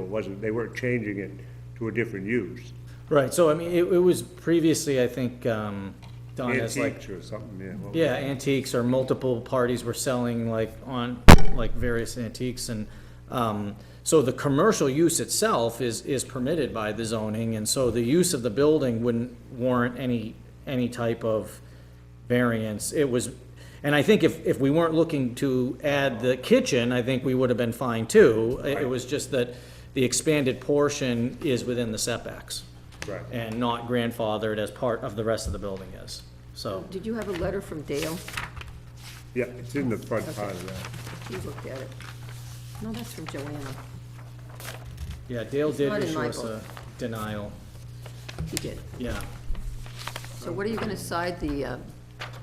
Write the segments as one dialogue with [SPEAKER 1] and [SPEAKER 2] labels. [SPEAKER 1] wasn't, they weren't changing it to a different use.
[SPEAKER 2] Right, so I mean, it, it was previously, I think, um, done as like,
[SPEAKER 1] Antiques or something, yeah. what was
[SPEAKER 2] yeah,
[SPEAKER 1] it?
[SPEAKER 2] antiques or multiple parties were selling like on, like various antiques and, um, so the commercial use itself is, is permitted by the zoning and so the use of the building wouldn't warrant any, any type of variance. It was, and I think if, if we weren't looking to add the kitchen, I think we would have been fine too. It, it was just that the expanded portion is within the setbacks
[SPEAKER 1] Right.
[SPEAKER 2] and not grandfathered as part of the rest of the building is, so.
[SPEAKER 3] Did you have a letter from Dale?
[SPEAKER 1] Yeah, it's in the front part of that.
[SPEAKER 3] You looked at it. No, that's from Joanna.
[SPEAKER 2] Yeah, Dale did
[SPEAKER 3] not in
[SPEAKER 2] issue
[SPEAKER 3] my
[SPEAKER 2] us a
[SPEAKER 3] book.
[SPEAKER 2] denial,
[SPEAKER 3] He did.
[SPEAKER 2] yeah.
[SPEAKER 3] So what are you gonna side the uh,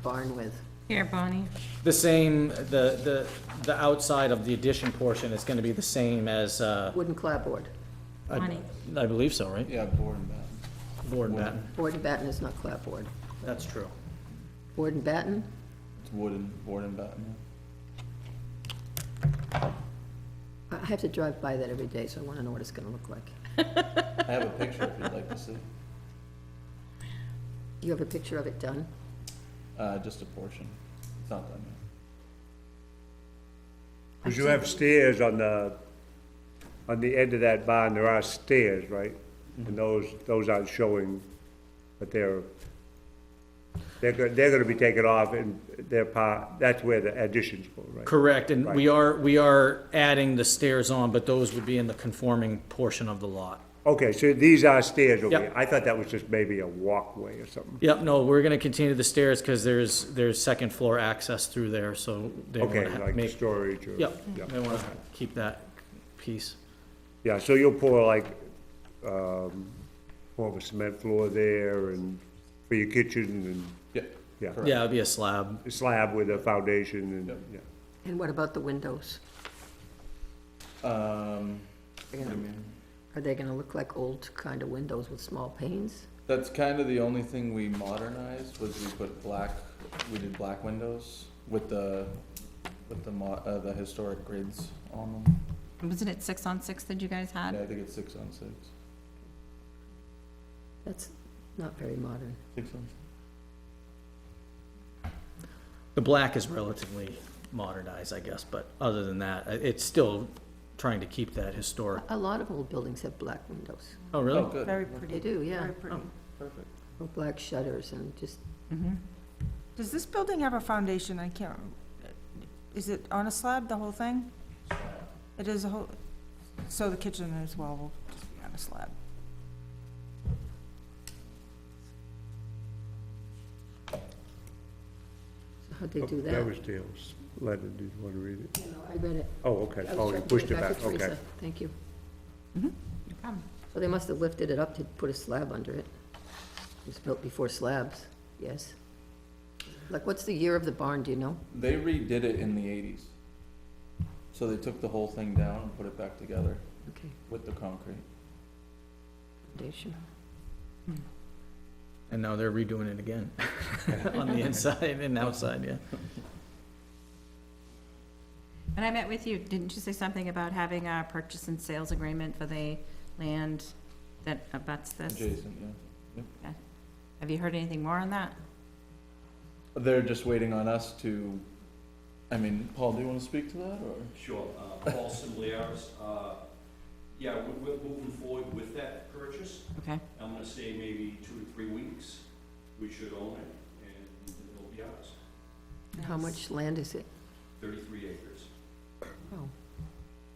[SPEAKER 3] barn with?
[SPEAKER 4] Here, Bonnie.
[SPEAKER 2] The same, the, the, the outside of the addition portion is gonna be the same as, uh,
[SPEAKER 3] Wooden clapboard.
[SPEAKER 2] I
[SPEAKER 4] Bonnie.
[SPEAKER 2] I believe so, right?
[SPEAKER 5] Yeah, board and batten.
[SPEAKER 2] Board and batten,
[SPEAKER 3] Board and batten is not clapboard.
[SPEAKER 2] that's true.
[SPEAKER 3] Board and batten?
[SPEAKER 5] It's wooden, board and batten.
[SPEAKER 3] I I have to drive by that every day, so I wanna know what it's gonna look like.
[SPEAKER 5] I have a picture if you'd like to see,
[SPEAKER 3] You have a picture of it done?
[SPEAKER 5] uh, just a portion. It's not done yet.
[SPEAKER 1] Because you have stairs on the, on the end of that barn, there are stairs, right? And those, those aren't showing, but they're, they're, go- they're gonna be taken off and they're part, that's where the additions go, right?
[SPEAKER 2] Correct, and we are, we are adding the stairs on, but those would be in the conforming portion of the lot.
[SPEAKER 1] Okay, so these are stairs over
[SPEAKER 2] Yep.
[SPEAKER 1] here. I thought that was just maybe a walkway or something.
[SPEAKER 2] Yep, no, we're gonna continue the stairs, cause there's, there's second floor access through there, so they
[SPEAKER 1] Okay,
[SPEAKER 2] wanna ha-
[SPEAKER 1] like
[SPEAKER 2] make,
[SPEAKER 1] storage or.
[SPEAKER 2] yep,
[SPEAKER 1] yeah.
[SPEAKER 2] they wanna keep that piece.
[SPEAKER 1] Yeah, so you'll pour like, um, more of a cement floor there and for your kitchen
[SPEAKER 5] Yeah.
[SPEAKER 1] Yeah.
[SPEAKER 5] correct.
[SPEAKER 2] Yeah, it'd be a slab,
[SPEAKER 1] and slab with a foundation and,
[SPEAKER 5] Yep.
[SPEAKER 1] yeah.
[SPEAKER 3] And what about the windows?
[SPEAKER 5] Um,
[SPEAKER 3] They're gonna- Are they gonna look like old kind of windows with small panes?
[SPEAKER 5] that's kind of the only thing we modernized was we put black, we did black windows with the, with the mo- uh, the historic grids on them.
[SPEAKER 4] Wasn't it six on six that you guys
[SPEAKER 5] Yeah,
[SPEAKER 4] had?
[SPEAKER 5] I think it's six on six.
[SPEAKER 3] That's not very modern.
[SPEAKER 5] Six on?
[SPEAKER 2] The black is relatively modernized, I guess, but other than that, uh, it's still trying to keep that historic.
[SPEAKER 3] A lot of old buildings have black windows.
[SPEAKER 2] Oh,
[SPEAKER 5] Oh,
[SPEAKER 2] really?
[SPEAKER 5] good,
[SPEAKER 4] Very pretty.
[SPEAKER 3] They do, yeah. Oh.
[SPEAKER 4] Very pretty.
[SPEAKER 5] perfect.
[SPEAKER 3] Or black shutters and just
[SPEAKER 6] Does this building have a foundation? I can't, is it on a slab, the whole thing? It is a whole, so the kitchen as well will just be on a slab.
[SPEAKER 3] How'd they do
[SPEAKER 1] Oh, That
[SPEAKER 3] that?
[SPEAKER 1] was Dale's letter, did you want to read it?
[SPEAKER 3] I read it.
[SPEAKER 1] Oh, okay,
[SPEAKER 3] I was
[SPEAKER 1] oh, you
[SPEAKER 3] trying to
[SPEAKER 1] pushed
[SPEAKER 3] get
[SPEAKER 1] it back,
[SPEAKER 3] to
[SPEAKER 1] okay.
[SPEAKER 3] Teresa. Thank you.
[SPEAKER 4] No problem.
[SPEAKER 3] So they must have lifted it up to put a slab under it. It was built before slabs, yes. Like, what's the year of the barn, do you know?
[SPEAKER 5] They redid it in the eighties. So they took the whole thing down and put it back together
[SPEAKER 3] Okay,
[SPEAKER 5] with the concrete.
[SPEAKER 3] foundation.
[SPEAKER 2] And now they're redoing it again, on the inside and outside, yeah.
[SPEAKER 4] And I met with you, didn't you say something about having a purchase and sales agreement for the land that abuts this?
[SPEAKER 5] Adjacent, yeah.
[SPEAKER 4] Have you heard anything more on that?
[SPEAKER 5] They're just waiting on us to, I mean, Paul, do you wanna speak to that, or?
[SPEAKER 7] Sure, uh, Paul Simbliaris, uh, yeah, we're, we're moving forward with that purchase.
[SPEAKER 4] Okay.
[SPEAKER 7] I'm gonna say maybe two to three weeks, we should own it, and it'll be ours,
[SPEAKER 3] How much land is it?
[SPEAKER 7] thirty-three acres.
[SPEAKER 3] Oh,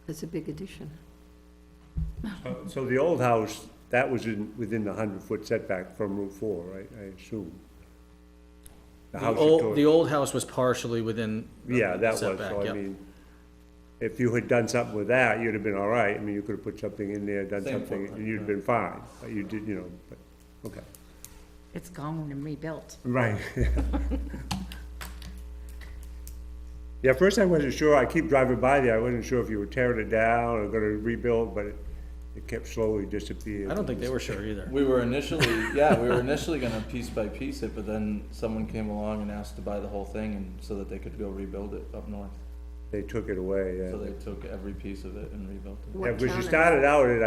[SPEAKER 3] that's a big addition.
[SPEAKER 1] Uh, So the old house, that was in, within the hundred-foot setback from Route Four, right, I assume? The
[SPEAKER 2] The
[SPEAKER 1] house you tore-
[SPEAKER 2] old, the old house was partially within. the
[SPEAKER 1] Yeah, that was,
[SPEAKER 2] setback,
[SPEAKER 1] so I
[SPEAKER 2] yep.
[SPEAKER 1] mean, if you had done something with that, you'd have been all right. I mean, you could have put something in there, done
[SPEAKER 5] Same
[SPEAKER 1] something, and
[SPEAKER 5] footprint,
[SPEAKER 1] you'd have been fine. But you did, you know, but, okay.
[SPEAKER 4] It's gone and rebuilt.
[SPEAKER 1] Right. Yeah, at first I wasn't sure, I keep driving by there, I wasn't sure if you were tearing it down or gonna rebuild, but it, it kept slowly disappearing.
[SPEAKER 2] I don't think they were sure either.
[SPEAKER 5] We were initially, yeah, we were initially gonna piece by piece it, but then someone came along and asked to buy the whole thing and, so that they could go rebuild it up north.
[SPEAKER 1] They took it away, yeah.
[SPEAKER 5] So they took every piece of it and rebuilt it.
[SPEAKER 3] What
[SPEAKER 1] Yeah,
[SPEAKER 3] town
[SPEAKER 1] because you
[SPEAKER 3] is it?
[SPEAKER 1] started out at, I